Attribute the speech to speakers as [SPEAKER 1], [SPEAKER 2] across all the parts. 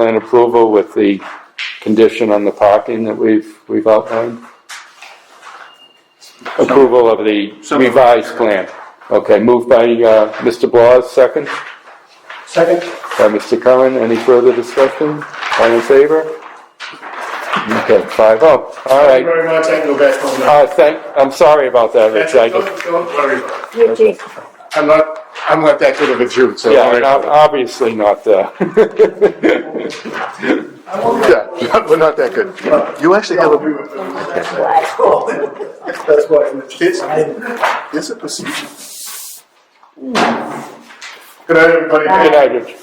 [SPEAKER 1] plan approval with the condition on the parking that we've, we've outlined? Approval of the
[SPEAKER 2] So moved.
[SPEAKER 1] revised plan. Okay, moved by, uh, Mr. Blas, second,
[SPEAKER 3] Second?
[SPEAKER 1] by Mr. Curran. Any further discussion? All in favor? Okay, five oh. All
[SPEAKER 3] Thank you
[SPEAKER 1] right.
[SPEAKER 3] very much, I can go back home now.
[SPEAKER 1] Uh, thank, I'm sorry about that, Rich. I just,
[SPEAKER 3] Don't, don't worry about it.
[SPEAKER 4] You did.
[SPEAKER 3] I'm not, I'm not that good of a Jew, so.
[SPEAKER 1] yeah, ob- obviously not, uh,
[SPEAKER 3] Yeah, we're not that good. You actually have a. That's why I'm It's, it's a procedure. Good night, everybody.
[SPEAKER 1] good night, Rich.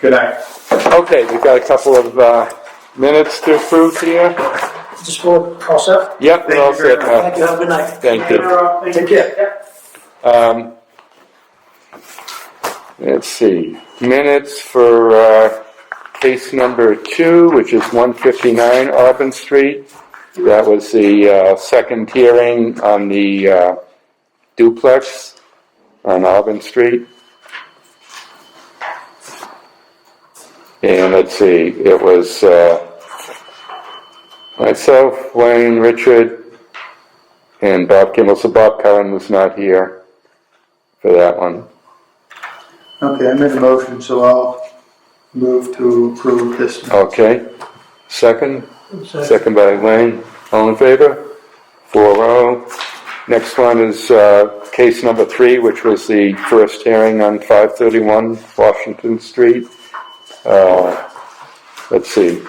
[SPEAKER 3] Good night.
[SPEAKER 1] Okay, we've got a couple of uh, minutes to approve here.
[SPEAKER 5] Just for process.
[SPEAKER 1] Yep, we're all set now.
[SPEAKER 5] Thank you. Have a good night.
[SPEAKER 1] Thank you.
[SPEAKER 5] Take care.
[SPEAKER 1] Um, Let's see, minutes for uh, case number two, which is 159 Auburn Street. That was the uh, second hearing on the uh, duplex on Auburn Street. And let's see, it was uh, myself, Wayne, Richard, and Bob Kimball. So Bob Cullen was not here for that one.
[SPEAKER 6] Okay, I made a motion, so I'll move to approve this.
[SPEAKER 1] Okay, second, second by Wayne, all in favor? Four oh. Next one is, uh, case number three, which was the first hearing on five thirty-one Washington Street. Uh, let's see,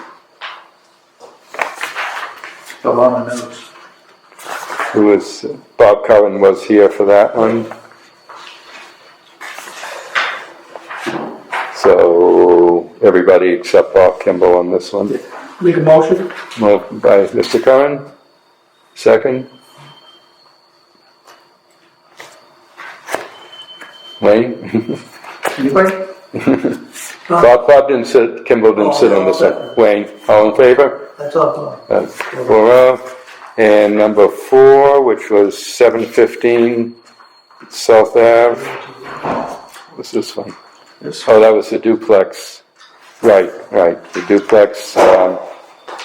[SPEAKER 6] Still on the notes.
[SPEAKER 1] who was, Bob Cullen was here for that one. So, everybody except Bob Kimball on this one.
[SPEAKER 5] Make a motion.
[SPEAKER 1] Moved by Mr. Curran, second. Wayne?
[SPEAKER 6] Anybody?
[SPEAKER 1] Bob, Bob didn't sit, Kimball didn't sit on this one. Wayne, all in favor?
[SPEAKER 5] That's all.
[SPEAKER 1] That's Four oh. And number four, which was seven fifteen South Ave. What's this one?
[SPEAKER 6] This.
[SPEAKER 1] Oh, that was the duplex. Right, right, the duplex. um,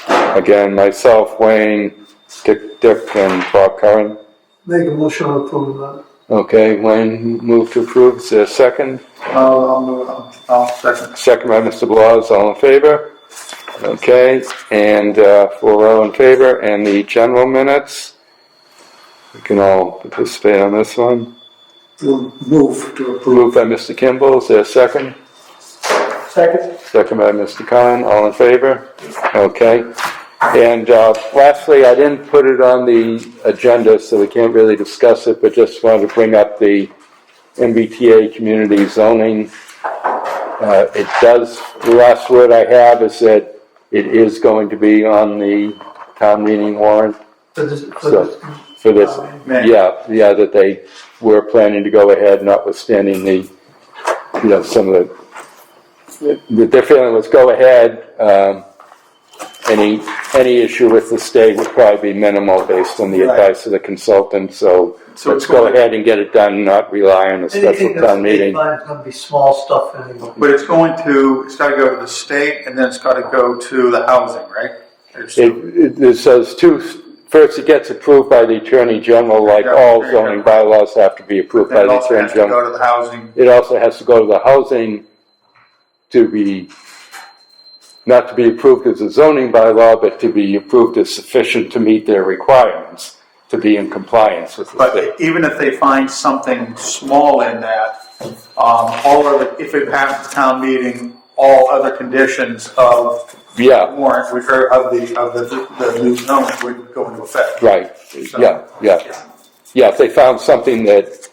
[SPEAKER 1] Again, myself, Wayne, Dick, Dick, and Bob Curran.
[SPEAKER 5] Make a motion uh, on approval of
[SPEAKER 1] Okay, Wayne moved to approve, is there a second?
[SPEAKER 6] I'll, I'll move, I'll- I'll second.
[SPEAKER 1] Second by Mr. Blas, all in favor? Okay, and uh, four all in favor, and the general minutes? We can all participate on this one.
[SPEAKER 6] We'll move to approve.
[SPEAKER 1] Moved by Mr. Kimball, is there a second?
[SPEAKER 5] that. Second.
[SPEAKER 1] Second by Mr. Khan, all in favor? Okay. And uh, lastly, I didn't put it on the agenda, so we can't really discuss it, but just wanted to bring up the MBTA community zoning. Uh, It does, the last word I have is that it is going to be on the town meeting warrant
[SPEAKER 5] For this, for
[SPEAKER 1] So-
[SPEAKER 5] this.
[SPEAKER 1] for this.
[SPEAKER 6] May.
[SPEAKER 1] Yeah, yeah, that they were planning to go ahead notwithstanding the, you know, some of the, that their feeling was go ahead. um, Any, any issue with the state would probably be minimal based on the
[SPEAKER 6] Right.
[SPEAKER 1] advice of the consultant, so
[SPEAKER 6] So
[SPEAKER 1] let's
[SPEAKER 6] it's
[SPEAKER 1] go
[SPEAKER 6] going-
[SPEAKER 1] ahead and get it done, not rely on a special
[SPEAKER 5] Anything that's
[SPEAKER 1] town meeting.
[SPEAKER 5] It's gonna be small stuff anymore.
[SPEAKER 6] But it's going to, it's gotta go to the state and then it's gotta go to the housing, right? It's-
[SPEAKER 1] It, it says two, first it gets approved by the attorney general, like
[SPEAKER 6] Yeah,
[SPEAKER 1] all
[SPEAKER 6] there you go.
[SPEAKER 1] zoning bylaws have to be approved
[SPEAKER 6] Then
[SPEAKER 1] by
[SPEAKER 6] it
[SPEAKER 1] the
[SPEAKER 6] also
[SPEAKER 1] attorney
[SPEAKER 6] has to
[SPEAKER 1] general.
[SPEAKER 6] go to the housing.
[SPEAKER 1] it also has to go to the housing to be, not to be approved as a zoning bylaw, but to be approved as sufficient to meet their requirements, to be in compliance with the state.
[SPEAKER 6] But even if they find something small in that, um, all other, if it passes town meeting, all other conditions of the
[SPEAKER 1] Yeah,
[SPEAKER 6] warrant, which are of the, of the, the new zone would go into effect.
[SPEAKER 1] right, yeah, yeah. Yeah, if they found something that,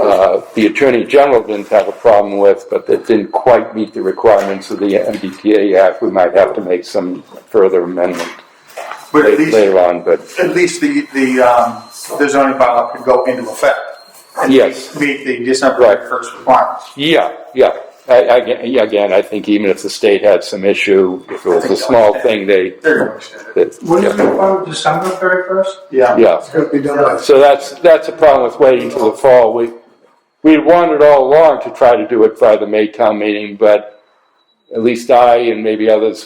[SPEAKER 1] uh, the Attorney General didn't have a problem with, but that didn't quite meet the requirements of the MBTA Act, we might have to make some further amendment
[SPEAKER 6] But at least,
[SPEAKER 1] later on, but.
[SPEAKER 6] at least the, the, um, the zoning bylaw could go into effect. and
[SPEAKER 1] Yes.
[SPEAKER 6] Meet the December
[SPEAKER 1] Right.
[SPEAKER 6] first requirements.
[SPEAKER 1] Yeah, yeah. I, I, yeah, again, I think even if the state had some issue, if it was a small thing, they,
[SPEAKER 6] They're gonna extend it.
[SPEAKER 1] that,
[SPEAKER 5] When is
[SPEAKER 1] yeah,
[SPEAKER 5] it, uh, December thirty first?
[SPEAKER 6] Yeah.
[SPEAKER 1] yeah.
[SPEAKER 3] It's gonna be done by
[SPEAKER 1] So that's, that's a problem with waiting till the fall. We, we wanted all along to try to do it by the May town meeting, but at least I and maybe others